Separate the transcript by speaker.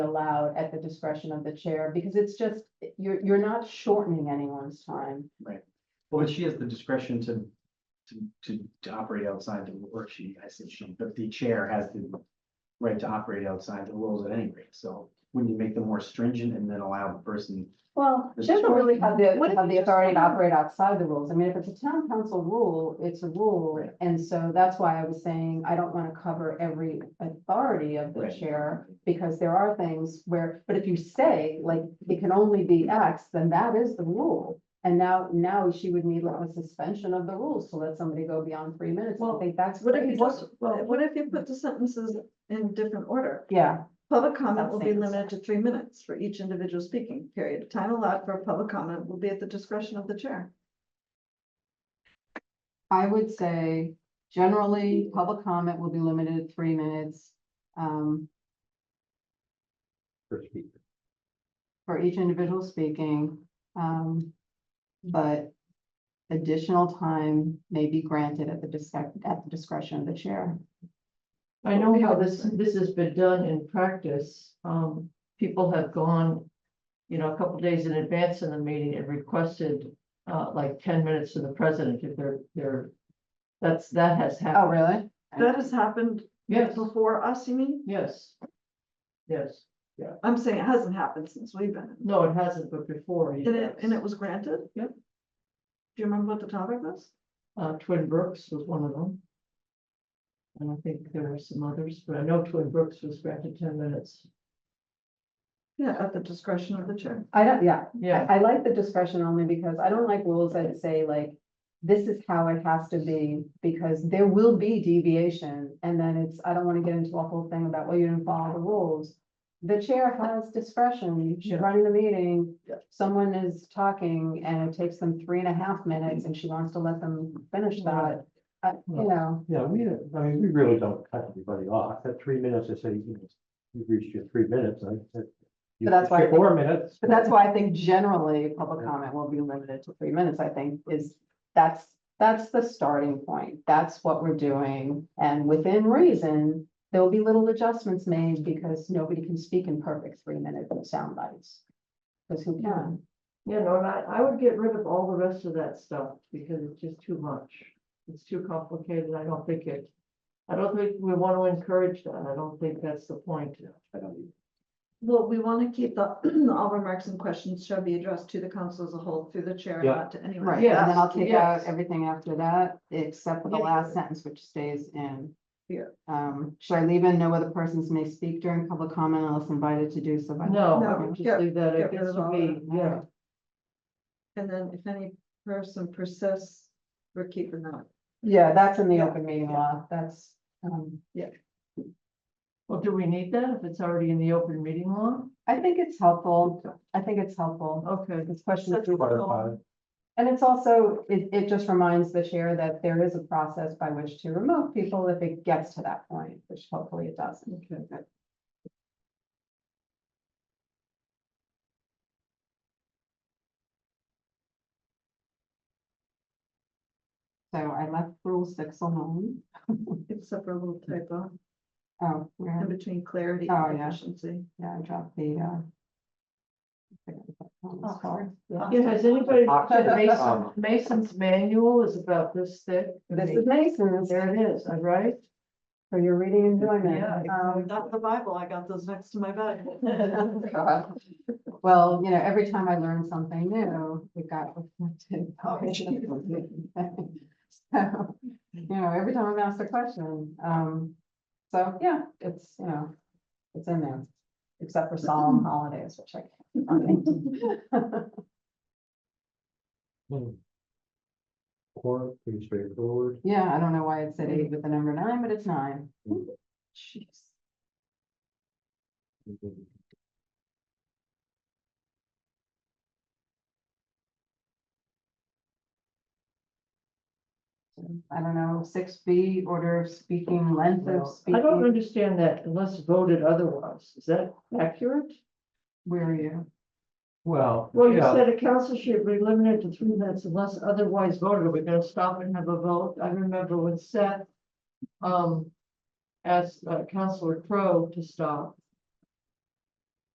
Speaker 1: allowed at the discretion of the chair, because it's just, you're, you're not shortening anyone's time.
Speaker 2: Well, but she has the discretion to, to, to, to operate outside the, or she, I said she, but the chair has the right to operate outside the rules at any rate, so wouldn't you make them more stringent and then allow the person?
Speaker 1: Well,
Speaker 2: This
Speaker 1: she doesn't
Speaker 2: is-
Speaker 1: really have the,
Speaker 3: What if
Speaker 1: have
Speaker 3: you
Speaker 1: the
Speaker 3: just
Speaker 1: authority to
Speaker 3: want-
Speaker 1: operate outside the rules. I mean, if it's a town council rule, it's a rule.
Speaker 2: Right.
Speaker 1: And so that's why I was saying, I don't want to cover every authority of the
Speaker 2: Right.
Speaker 1: chair, because there are things where, but if you say, like, it can only be X, then that is the rule. And now, now she would need like a suspension of the rules to let somebody go beyond three minutes. I
Speaker 3: Well,
Speaker 1: think that's.
Speaker 3: What if you
Speaker 1: crazy.
Speaker 3: just, well, what if you put the sentences in different order?
Speaker 1: Yeah,
Speaker 3: Public comment will be
Speaker 1: Something.
Speaker 3: limited to three minutes for each individual speaking period. Time allowed for public comment will be at the discretion of the chair.
Speaker 1: I would say generally,
Speaker 4: Mm.
Speaker 1: public comment will be limited to three minutes. Um,
Speaker 4: per speaker.
Speaker 1: for each individual speaking, um, but additional time may be granted at the discretion, at the discretion of the chair.
Speaker 5: I know how this, this has been done in practice. Um, people have gone, you know, a couple days in advance in the meeting and requested, uh, like ten minutes to the president if they're, they're, that's, that has
Speaker 1: Oh,
Speaker 5: happened.
Speaker 1: really?
Speaker 3: That has happened
Speaker 5: Yes,
Speaker 3: before us, you mean?
Speaker 5: yes. Yes.
Speaker 3: I'm saying it hasn't happened since we've been. in.
Speaker 5: No, it hasn't, but before.
Speaker 3: And it, and it
Speaker 5: yes.
Speaker 3: was granted?
Speaker 5: Yep.
Speaker 3: Do you remember what the topic was?
Speaker 5: Uh, Twin Brooks was one of them. And I think there were some others, but I know Twin Brooks was granted ten minutes.
Speaker 3: Yeah, at the discretion of the chair.
Speaker 1: I don't, yeah,
Speaker 5: Yeah,
Speaker 1: I, I like the discretion only because I don't like rules that say like, this is how it has to be, because there will be deviation, and then it's, I don't wanna get into a whole thing about, well, you didn't follow the rules. The chair has discretion, she's
Speaker 5: Yeah.
Speaker 1: running the meeting,
Speaker 5: Yeah.
Speaker 1: someone is talking, and it takes them three and a half minutes, and she wants to let them finish that. Uh, you know,
Speaker 4: Yeah, we, don't- I mean, we really don't cut everybody off. At three minutes, I say, you know, you've reached your three minutes, I said. you
Speaker 1: But that's
Speaker 4: reached your
Speaker 1: why-
Speaker 4: Four minutes.
Speaker 1: but that's why I think generally, public comment will be limited to three minutes, I think, is, that's, that's the starting point. That's what we're doing, and within reason, there will be little adjustments made because nobody can speak in perfect three-minute sound bites. Because who can?
Speaker 5: you know, and I, I would get rid of all the rest of that stuff because it's just too much. It's too complicated. I don't think it, I don't think we want to encourage that. I don't think that's the point.
Speaker 2: I don't,
Speaker 3: Well, we want to keep the, all remarks and questions shall be addressed to the council as a whole through the chair,
Speaker 4: Yeah.
Speaker 3: not to anyone.
Speaker 1: Right, and then I'll
Speaker 5: Yes,
Speaker 1: take out
Speaker 5: yes.
Speaker 1: everything after that, except for the
Speaker 5: Yeah.
Speaker 1: last sentence, which stays in.
Speaker 3: Yeah.
Speaker 1: Um, should I leave in, no other persons may speak during public comment unless invited to do so by.
Speaker 5: No, I
Speaker 3: No,
Speaker 5: would
Speaker 3: get-
Speaker 5: just leave that.
Speaker 3: get
Speaker 5: It
Speaker 3: rid
Speaker 5: gets
Speaker 3: of
Speaker 5: to
Speaker 3: all
Speaker 5: be,
Speaker 3: that.
Speaker 5: yeah,
Speaker 3: And then if any person persists, we're keeping that.
Speaker 1: Yeah, that's in the
Speaker 3: Yeah.
Speaker 1: open meeting law, that's, um,
Speaker 5: well, do we need that if it's already in the open meeting law?
Speaker 1: I think it's helpful, I think it's helpful.
Speaker 5: Okay,
Speaker 1: This question.
Speaker 3: Such a
Speaker 4: Clarify.
Speaker 1: And it's also, it, it just reminds the chair that there is a process by which to remove people if it gets to that point, which hopefully it doesn't.
Speaker 3: Okay.
Speaker 1: So I left rule six alone.
Speaker 3: Except for a little typo
Speaker 1: Oh,
Speaker 3: in
Speaker 1: where,
Speaker 3: between clarity
Speaker 1: Oh,
Speaker 3: and
Speaker 1: yeah.
Speaker 3: efficiency.
Speaker 1: yeah, I dropped the, uh. I forget what that
Speaker 5: Oh,
Speaker 1: one was called.
Speaker 5: yeah, has anybody, looked at
Speaker 4: Um,
Speaker 5: Mason- Mason's manual is about this thick.
Speaker 1: This is Mason's, so
Speaker 5: There it is, all right?
Speaker 1: you're reading and doing
Speaker 5: Yeah,
Speaker 1: it. Um,
Speaker 3: Not the Bible, I got those next to my bed.
Speaker 1: God. Well, you know, every time I learn something new, it got reflected.
Speaker 5: Oh,
Speaker 3: Oh,
Speaker 1: So, You know, every time I'm asked a question, um, so, yeah, it's, you know, it's in there, except for
Speaker 5: Mm-hmm.
Speaker 1: solemn holidays, which I. can't.
Speaker 4: hmm. Four, pretty straightforward.
Speaker 1: Yeah, I don't know why it said eight with the number nine, but it's nine. Jeez. I don't know, six B, order of speaking, length of
Speaker 5: Well, I don't
Speaker 1: speaking,
Speaker 5: understand that unless voted otherwise. Is that accurate?
Speaker 1: where are you?
Speaker 4: Well.
Speaker 5: Well, you
Speaker 4: yeah,
Speaker 5: said a council should be limited to three minutes unless otherwise voted. Are we gonna stop and have a vote? I remember when Seth um asked uh, Counselor Crowe to stop